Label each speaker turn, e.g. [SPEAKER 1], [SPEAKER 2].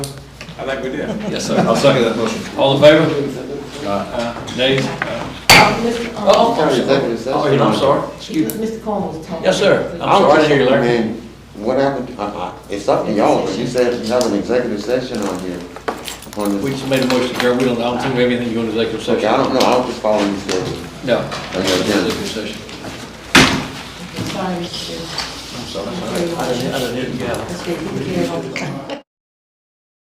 [SPEAKER 1] I think we did.
[SPEAKER 2] Yes, sir.
[SPEAKER 3] I'll second that motion.
[SPEAKER 2] All in favor? Uh, Nays?
[SPEAKER 4] Oh,
[SPEAKER 2] Oh,
[SPEAKER 5] Executive session.
[SPEAKER 2] oh, I'm sorry. Excuse me.
[SPEAKER 4] Mr. Corn was talking.
[SPEAKER 2] Yes, sir.
[SPEAKER 5] I
[SPEAKER 2] I'm sorry to hear you, Larry.
[SPEAKER 5] mean, What happened, I- I- it's up to y'all, but you said you have an executive session on here. on
[SPEAKER 2] We
[SPEAKER 5] this.
[SPEAKER 2] just made a motion, Gary, we don't, I don't think we have anything to go into executive
[SPEAKER 5] Okay,
[SPEAKER 2] session.
[SPEAKER 5] I don't know, I was just following the schedule.
[SPEAKER 2] No.
[SPEAKER 5] Okay, then.
[SPEAKER 2] Executive session.
[SPEAKER 4] Sorry, Mr.
[SPEAKER 2] I'm sorry. I didn't, I didn't hear you.
[SPEAKER 4] Chair. Let's get you here all the time.